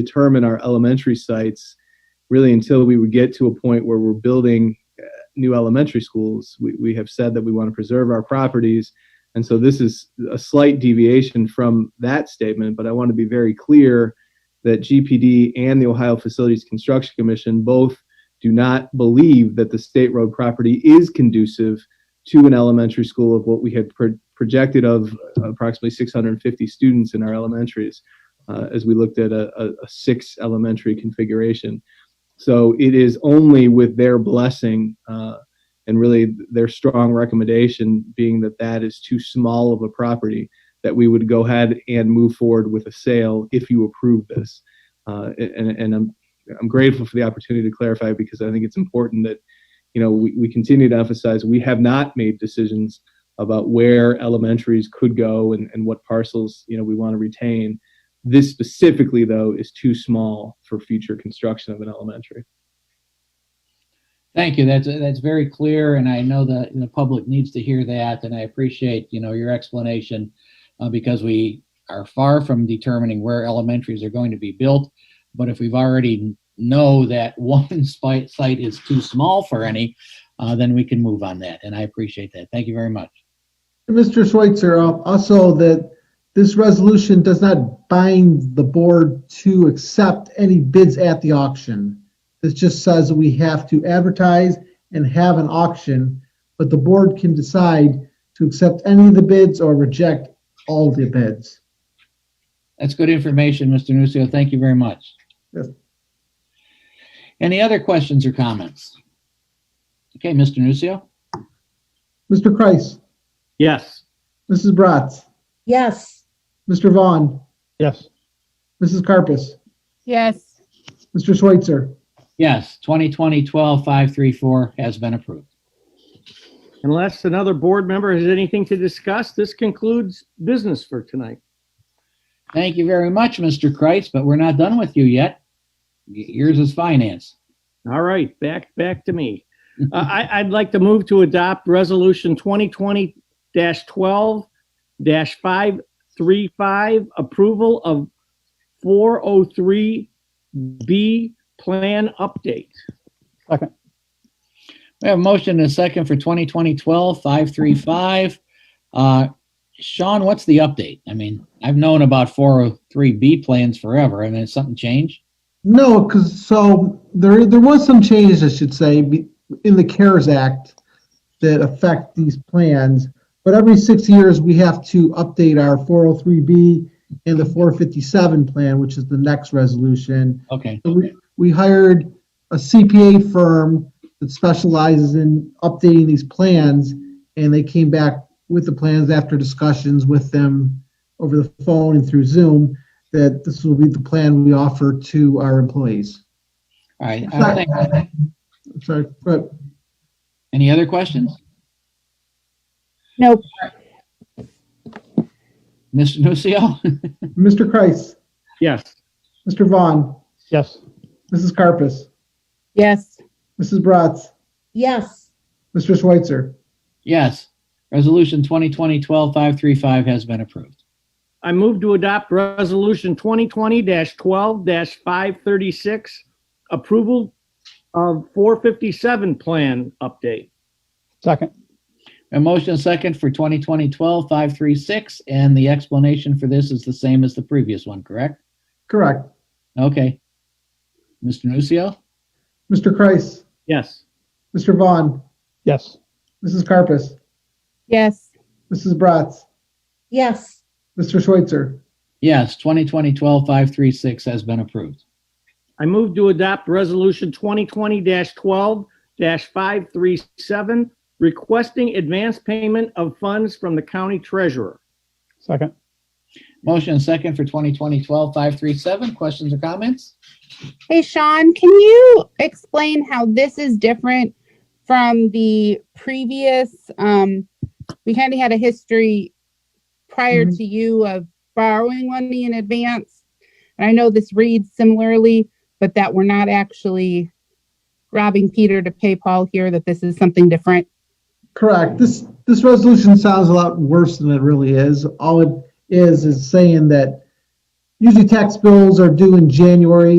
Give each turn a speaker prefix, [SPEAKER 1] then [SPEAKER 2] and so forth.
[SPEAKER 1] determine our elementary sites really until we would get to a point where we're building uh, new elementary schools. We, we have said that we want to preserve our properties. And so this is a slight deviation from that statement, but I want to be very clear that GPD and the Ohio Facilities Construction Commission both do not believe that the state road property is conducive to an elementary school of what we had pro- projected of approximately 650 students in our elementaries uh, as we looked at a, a, a six elementary configuration. So it is only with their blessing uh, and really their strong recommendation being that that is too small of a property that we would go ahead and move forward with a sale if you approve this. Uh, and, and I'm, I'm grateful for the opportunity to clarify because I think it's important that, you know, we, we continue to emphasize we have not made decisions about where elementaries could go and, and what parcels, you know, we want to retain. This specifically, though, is too small for future construction of an elementary.
[SPEAKER 2] Thank you. That's, that's very clear, and I know that the public needs to hear that, and I appreciate, you know, your explanation, uh, because we are far from determining where elementaries are going to be built. But if we've already know that one site, site is too small for any, uh, then we can move on that, and I appreciate that. Thank you very much.
[SPEAKER 3] Mr. Schweitzer, uh, also that this resolution does not bind the board to accept any bids at the auction. This just says we have to advertise and have an auction, but the board can decide to accept any of the bids or reject all the bids.
[SPEAKER 2] That's good information, Mr. Nucio. Thank you very much.
[SPEAKER 3] Yes.
[SPEAKER 2] Any other questions or comments? Okay, Mr. Nucio?
[SPEAKER 3] Mr. Kreis,
[SPEAKER 4] Yes.
[SPEAKER 3] Mrs. Bratz,
[SPEAKER 5] Yes,
[SPEAKER 3] Mr. Vaughn,
[SPEAKER 4] Yes.
[SPEAKER 3] Mrs. Carpus,
[SPEAKER 6] Yes,
[SPEAKER 3] Mr. Schweitzer.
[SPEAKER 2] Yes, 2020-12-534 has been approved.
[SPEAKER 4] Unless another board member has anything to discuss, this concludes business for tonight.
[SPEAKER 2] Thank you very much, Mr. Kreis, but we're not done with you yet. Y- Yours is finance.
[SPEAKER 4] All right, back, back to me. Uh, I, I'd like to move to adopt Resolution 2020-12-535, approval of 403B plan update.
[SPEAKER 2] We have a motion and a second for 2020-12-535. Uh, Sean, what's the update? I mean, I've known about 403B plans forever. I mean, has something changed?
[SPEAKER 3] No, because so there there was some changes, I should say, be- in the CARES Act that affect these plans. But every six years, we have to update our 403B and the 457 plan, which is the next resolution.
[SPEAKER 2] Okay,
[SPEAKER 3] So we, we hired a CPA firm that specializes in updating these plans, and they came back with the plans after discussions with them over the phone and through Zoom, that this will be the plan we offer to our employees.
[SPEAKER 2] all right. uh, I think-
[SPEAKER 3] Sorry, but
[SPEAKER 2] Any other questions?
[SPEAKER 5] Nope.
[SPEAKER 2] Mr. Nucio?
[SPEAKER 3] Mr. Kreis,
[SPEAKER 4] Yes.
[SPEAKER 3] Mr. Vaughn,
[SPEAKER 4] Yes.
[SPEAKER 3] Mrs. Carpus,
[SPEAKER 6] yes,
[SPEAKER 3] Mrs. Bratz,
[SPEAKER 5] yes,
[SPEAKER 3] Mr. Schweitzer.
[SPEAKER 2] Yes. Resolution 2020-12-535 has been approved.
[SPEAKER 4] I move to adopt Resolution 2020-12-536, approval of 457 plan update.
[SPEAKER 7] Second,
[SPEAKER 2] A motion and second for 2020-12-536, and the explanation for this is the same as the previous one, correct?
[SPEAKER 3] Correct.
[SPEAKER 2] Okay. Mr. Nucio?
[SPEAKER 3] Mr. Kreis,
[SPEAKER 4] Yes.
[SPEAKER 3] Mr. Vaughn,
[SPEAKER 7] yes,
[SPEAKER 3] Mrs. Carpus,
[SPEAKER 6] yes,
[SPEAKER 3] Mrs. Bratz,
[SPEAKER 5] yes,
[SPEAKER 3] Mr. Schweitzer.
[SPEAKER 2] Yes, 2020-12-536 has been approved.
[SPEAKER 4] I move to adopt Resolution 2020-12-537, requesting advance payment of funds from the county treasurer.
[SPEAKER 7] second,
[SPEAKER 2] Motion and second for 2020-12-537. Questions or comments?
[SPEAKER 6] hey, Sean, can you explain how this is different from the previous, um, we kind of had a history prior
[SPEAKER 5] Mm-hmm.
[SPEAKER 3] Mhm.
[SPEAKER 6] to you of borrowing money in advance. And I know this reads similarly, but that we're not actually robbing Peter to pay Paul here, that this is something different.
[SPEAKER 3] Correct. This, this resolution sounds a lot worse than it really is. All it is, is saying that usually tax bills are due in January.